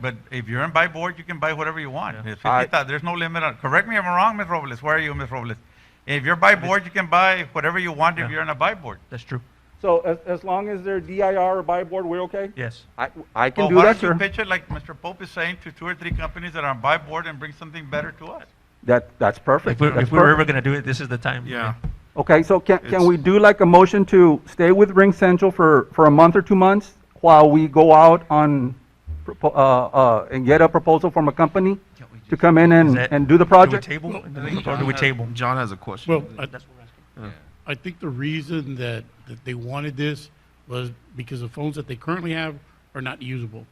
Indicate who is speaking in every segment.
Speaker 1: But if you're in buy board, you can buy whatever you want. It's
Speaker 2: I-
Speaker 1: 50,000. There's no limit on, correct me if I'm wrong, Ms. Robles, where are you, Ms. Robles? If you're buy board, you can buy whatever you want if
Speaker 3: Yeah.
Speaker 1: you're in a buy board.
Speaker 3: That's true.
Speaker 4: So as, as long as they're DIR or buy board, we're okay?
Speaker 3: Yes.
Speaker 2: I, I can
Speaker 1: Well,
Speaker 2: do
Speaker 1: why
Speaker 2: that,
Speaker 1: don't you
Speaker 2: sir.
Speaker 1: pitch it like Mr. Pope is saying to two or three companies that are on buy board and bring something better to us?
Speaker 2: That, that's perfect.
Speaker 3: If we're,
Speaker 2: That's
Speaker 3: if we're
Speaker 2: perfect.
Speaker 3: ever going to do it, this is the time.
Speaker 5: Yeah.
Speaker 2: Okay, so can, can
Speaker 5: It's-
Speaker 2: we do like a motion to stay with Ring Central for, for a month or two months while we go out on, propo- uh, uh, and get a proposal from a company to come in
Speaker 3: Is
Speaker 2: and,
Speaker 3: that-
Speaker 2: and do the project?
Speaker 3: Do we table? Or do we table?
Speaker 5: John has a question.
Speaker 6: Well, I,
Speaker 3: That's what we're asking.
Speaker 6: I think the reason that, that they wanted this was because the phones that they currently have are not usable.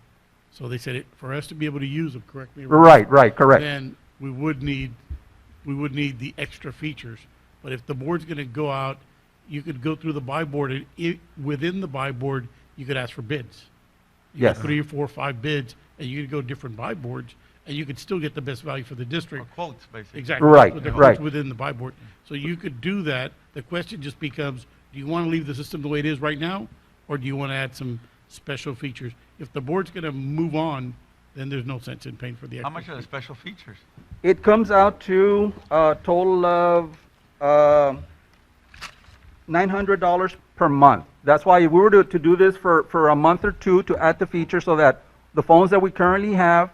Speaker 6: So they said it, for us to be able to use them, correct me if I'm wrong,
Speaker 2: Right, right, correct.
Speaker 6: Then we would need, we would need the extra features. But if the board's gonna go out, you could go through the buy board, and i within the buy board, you could ask for bids. You get
Speaker 2: Yes.
Speaker 6: Three, four, five bids, and you could go different buy boards, and you could still get the best value for the
Speaker 1: Or
Speaker 6: district.
Speaker 1: quotes, basically.
Speaker 6: Exactly.
Speaker 2: Right,
Speaker 6: But they're
Speaker 2: right.
Speaker 6: grouped Within the buy board. So you could do that. The question just becomes, do you want to leave the system the way it is right now? Or do you want to add some special features? If the board's going to move on, then there's no sense in paying for the
Speaker 1: How
Speaker 6: extra.
Speaker 1: much are the special features?
Speaker 2: It comes out to a total of, uh, nine hundred dollars per month. That's why if we were to, to do this for, for a month or two to add the feature so that the phones that we currently have,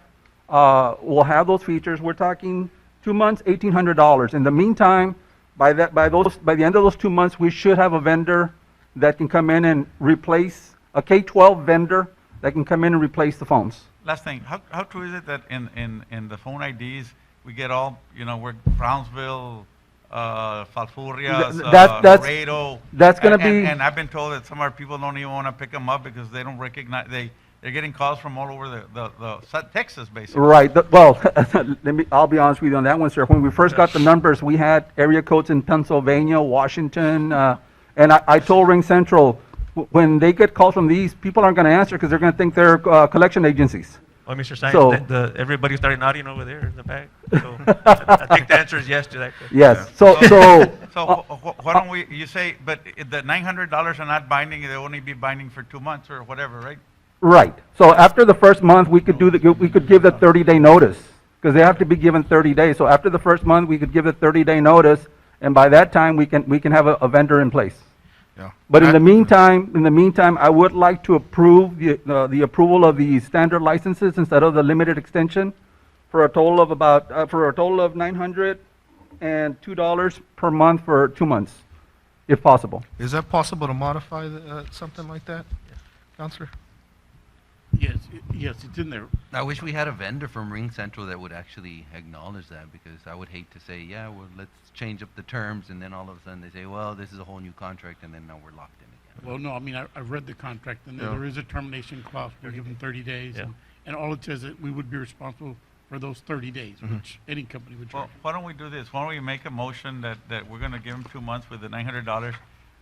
Speaker 2: uh, will have those features. We're talking two months, eighteen hundred dollars. In the meantime, by that, by those, by the end of those two months, we should have a vendor that can come in and replace, a K-12 vendor that can come in and replace the phones.
Speaker 1: Last thing, how, how true is it that in, in, in the phone IDs, we get all, you know, we're Brownsville, uh, Falfurrias,
Speaker 2: Th- that-
Speaker 1: uh,
Speaker 2: that's-
Speaker 1: Laredo.
Speaker 2: that's gonna
Speaker 1: And- and-
Speaker 2: be-
Speaker 1: And I've been told that some of our people don't even wanna pick them up because they don't recognize, they, they're getting calls from all over the, the, the, Sa- Texas, basically.
Speaker 2: Right, the- well, let me, I'll be honest with you on that one, sir. When we first got the numbers, we had area codes in Pennsylvania, Washington, uh, and I, I told Ring Central, "W- when they get calls from these, people aren't gonna answer because they're gonna think they're, uh, collection agencies.
Speaker 3: Well, Mr. Science,
Speaker 2: So-
Speaker 3: the, the, everybody started nodding over there in the back. So I, I think the answer is yes to that. question.
Speaker 2: Yes, so, so,
Speaker 1: So wh- wh- why don't we, you say, but i- the nine hundred dollars are not binding, they'll only be binding for two months or whatever, right?
Speaker 2: right. So after the first month, we could do the, we could give the thirty-day notice, because they have to be given thirty days. So after the first month, we could give the thirty-day notice, and by that time, we can, we can have a, a vendor in place.
Speaker 5: Yeah.
Speaker 2: But in
Speaker 5: I-
Speaker 2: the meantime, in the meantime, I would like to approve the, uh, the approval of the standard licenses instead of the limited extension for a total of about, uh, for a total of nine hundred and two dollars per month for two months, if possible.
Speaker 5: Is that possible to modify the, uh, something like that, Counselor?
Speaker 6: Yes, i- yes, it's in there.
Speaker 7: I wish we had a vendor from Ring Central that would actually acknowledge that because I would hate to say, yeah, well, let's change up the terms, and then all of a sudden they say, well, this is a whole new contract, and then now we're locked in again.
Speaker 6: Well, no, I mean, I, I've read the contract, and there-
Speaker 5: Yeah.
Speaker 6: there is a termination clause. We give them 30 days.
Speaker 3: Yeah.
Speaker 6: and- And all it says that we would be responsible for those 30 days, which any company would
Speaker 1: Mm-hmm. Well,
Speaker 6: charge.
Speaker 1: why don't we do this? Why don't we make a motion that, that we're gonna give them two months with the nine hundred dollars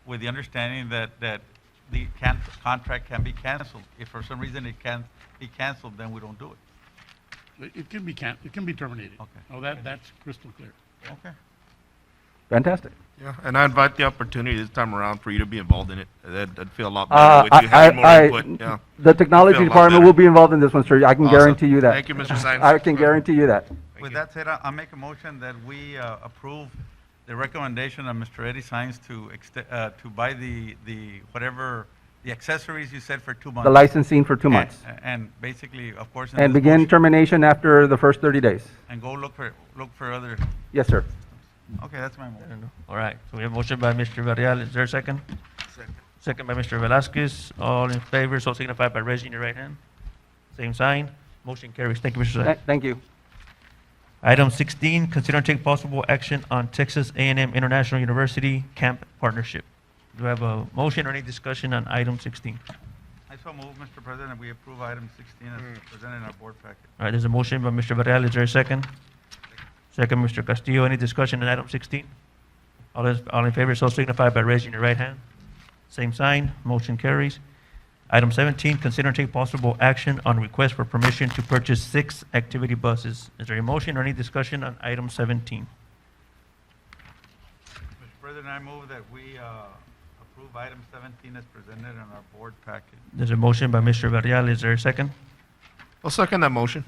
Speaker 1: with the understanding that, that the can, contract can be canceled. If for some reason it can't be canceled, then we don't do it.
Speaker 6: It it can be can, it can be terminated.
Speaker 1: Okay.
Speaker 6: Oh, that, that's crystal clear.
Speaker 1: Okay.
Speaker 2: Fantastic.
Speaker 5: Yeah, and I invite the opportunity this time around for you to be involved in it. That'd, I'd feel a lot
Speaker 2: Uh,
Speaker 5: better with
Speaker 2: I,
Speaker 5: you having more
Speaker 2: I-
Speaker 5: input, yeah.
Speaker 2: I, the technology
Speaker 5: Feel a lot
Speaker 2: department
Speaker 5: better.
Speaker 2: will be involved in this one, sir. I can
Speaker 5: Awesome.
Speaker 2: guarantee you that.
Speaker 5: Thank you, Mr. Sines.
Speaker 2: I can guarantee you that.
Speaker 5: Thank
Speaker 1: With
Speaker 5: you.
Speaker 1: that said, I, I make a motion that we uh, approve the recommendation of Mr. Eddie Sines to exte- uh, to buy the, the, whatever, the accessories you said for two months.
Speaker 2: The licensing for two months.
Speaker 1: And- And basically, of course. in
Speaker 2: And
Speaker 1: this
Speaker 2: begin
Speaker 1: motion-
Speaker 2: termination after the first thirty days.
Speaker 1: And go look for, look for other,
Speaker 2: Yes, sir.
Speaker 1: okay, that's my motion.
Speaker 3: All right. So we have motion by Mr. Varela. Is there a second? Second. Second by Mr. Velasquez. All in favor, so signify by raising your right hand. Same sign. Motion carries. Thank you, Mr. Science.
Speaker 2: Th- Thank you.
Speaker 3: Item 16, consider and take possible action on Texas A&M International University Camp Partnership. Do I have a motion or any discussion on item 16? All
Speaker 1: I so move, Mr. President, we approve item 16 as presented in our board packet.
Speaker 3: right, there's a motion by Mr. Varela. Is there a second? Second, Mr. Castillo. Any discussion on item 16? All is- all in favor, so signify by raising your right hand. Same sign, motion carries. Item 17, consider and take possible action on request for permission to purchase six activity buses. Is there a motion or any discussion on item 17?
Speaker 1: Mr. President, I move that we uh, approve item 17 as presented in our board packet.
Speaker 3: There's a motion by Mr. Varela. Is there a second?
Speaker 5: I'll second that motion.